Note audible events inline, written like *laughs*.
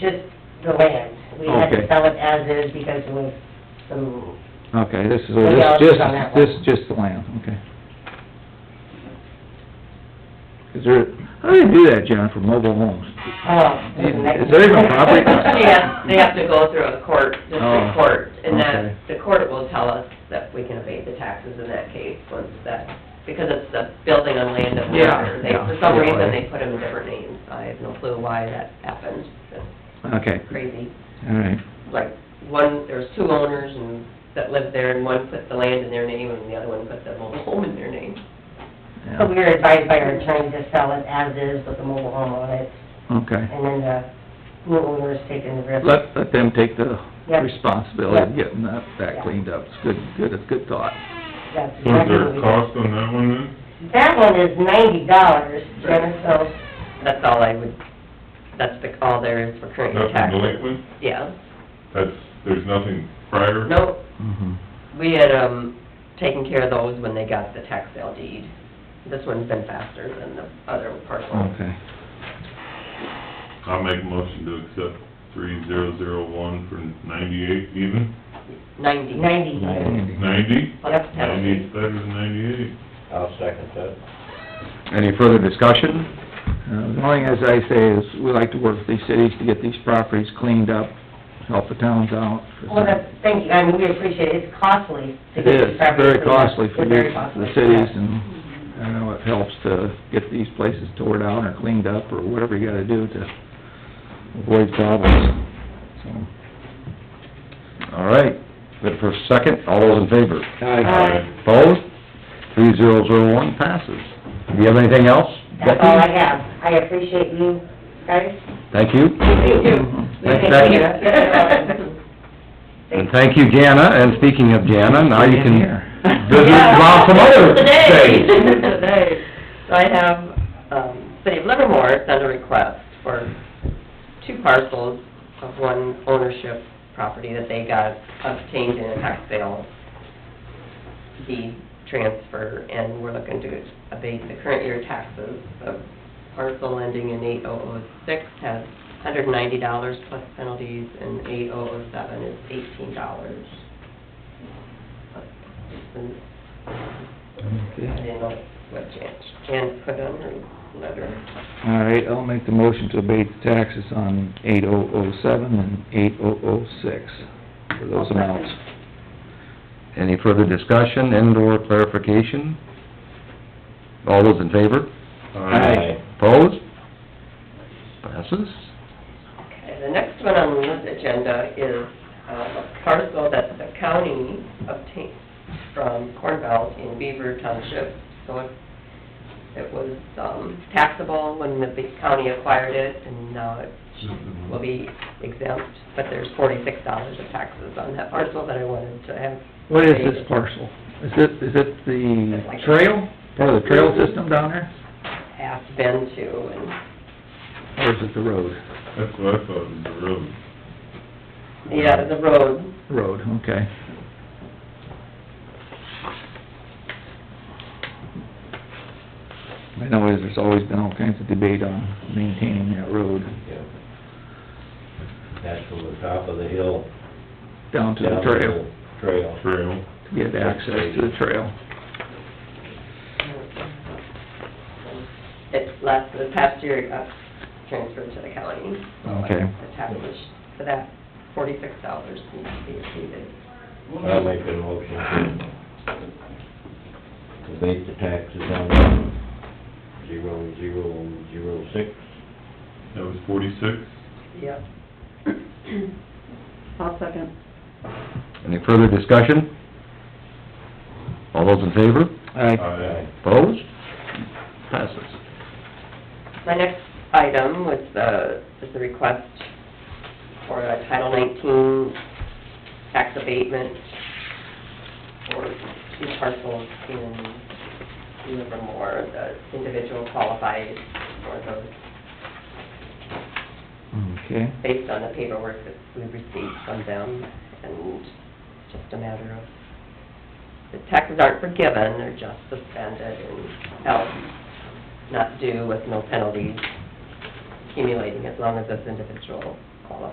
just the land. We had Okay. to sell it as is because there was some, Okay, this is, Maybe I'll this just just, on that one. this is just the land, okay. Is there, how do you do that, John, for mobile homes? oh. Is there *laughs* even property? They have, they have to go through a court, Oh, district court, and okay. that, the court will tell us that we can evade the taxes in that case, once that, because it's the building on land of the Yeah, other. They, yeah, for some yeah, reason, right. they put them in different names, I have no clue why that happened, it's Okay, crazy. all right, Like, one, there's two owners and, that lived there, and one put the land in their name, and the other one put the mobile home in their name. So we yeah, were advised by our attorney to sell it as is with the mobile home on it, okay. and then the new owners taking the risk. Let, let them take the Yep. responsibility of Yep. getting that, that cleaned up, it's good, good, it's good thought. That's So is exactly there what a we cost on that one then? did. That one is ninety dollars, Jenna, so, That's all I would, that's the, all there is for current Nothing taxes. delinquent? Yeah, That's, there's nothing prior? no, Mhm. We had, um, taken care of those when they got the tax sale deed. This one's been faster than the other parcel. Okay, I'll make a motion to accept three zero zero one for ninety-eight even, Ninety. ninety even. Andy. ninety? Plus Ninety penalty. is better than ninety-eight. I'll second that. Any further discussion? Uh, the only thing as I say is, we like to work with these cities to get these properties cleaned up, help the towns out. Well, that's, thank you, I mean, we appreciate it, it's costly to It get is, these properties. very cleaned up. costly for It's the, very costly, the cities, yeah. and, I know it helps to get these places tore down or cleaned up, or whatever you gotta do to avoid problems, so. All right, good for a second, all those in favor? Aye. Opposed? Three zero zero one passes. Do you have anything else? That's all I have. I appreciate you guys. Thank you. Thank you. Thanks, Thank you. Becky. And thank you, Jana, and speaking of Jana, now you Get in can here. visit about some *laughs* other *laughs* Today, things. today. So I have, um, City of Livermore sent a request for two parcels of one ownership property that they got obtained in a tax sale deed transfer, and we're looking to abate the current year taxes of parcel ending in eight oh oh six has hundred and ninety dollars plus penalties, and eight oh oh seven is eighteen dollars. I Okay. didn't know what Jan, Jan put on her letter. All right, I'll make the motion to abate the taxes on eight oh oh seven and eight oh oh six, for those amounts. Any further discussion and or clarification? All those in favor? Aye. Opposed? Passes? Okay, the next one on this agenda is uh, a parcel that the county obtained from Cornville in Beaver Township. So it, it was um, taxable when the big county acquired it, and now it will be exempt, but there's forty-six dollars of taxes on that parcel that I wanted to have. What is this parcel? Is it, is it the trail, part of the trail system down there, Asked Ben to, and or is it the road? That's what I thought was the road. Yeah, the road, Road, okay. I know there's always been all kinds of debate on maintaining that road Yeah. That's from the top of the hill. down to the down trail, the Trail. Trail. to get access to the trail. it last, the past year, it got transferred to the county. so Okay. The taxes for that, forty-six dollars needs to be exceeded. I'll make a motion to abate the taxes on zero, zero, zero six. That was forty-six? Yep. I'll second. Any further discussion? All those in favor? Aye. Aye. Opposed? Passes. My next item was the, is the request for a Title nineteen tax abatement for two parcels in Livermore. The individual qualified for those Okay, based on the paperwork that we received from them, and it's just a matter of, the taxes aren't forgiven, they're just suspended and held not due with no penalties. accumulating as long as this individual qualifies.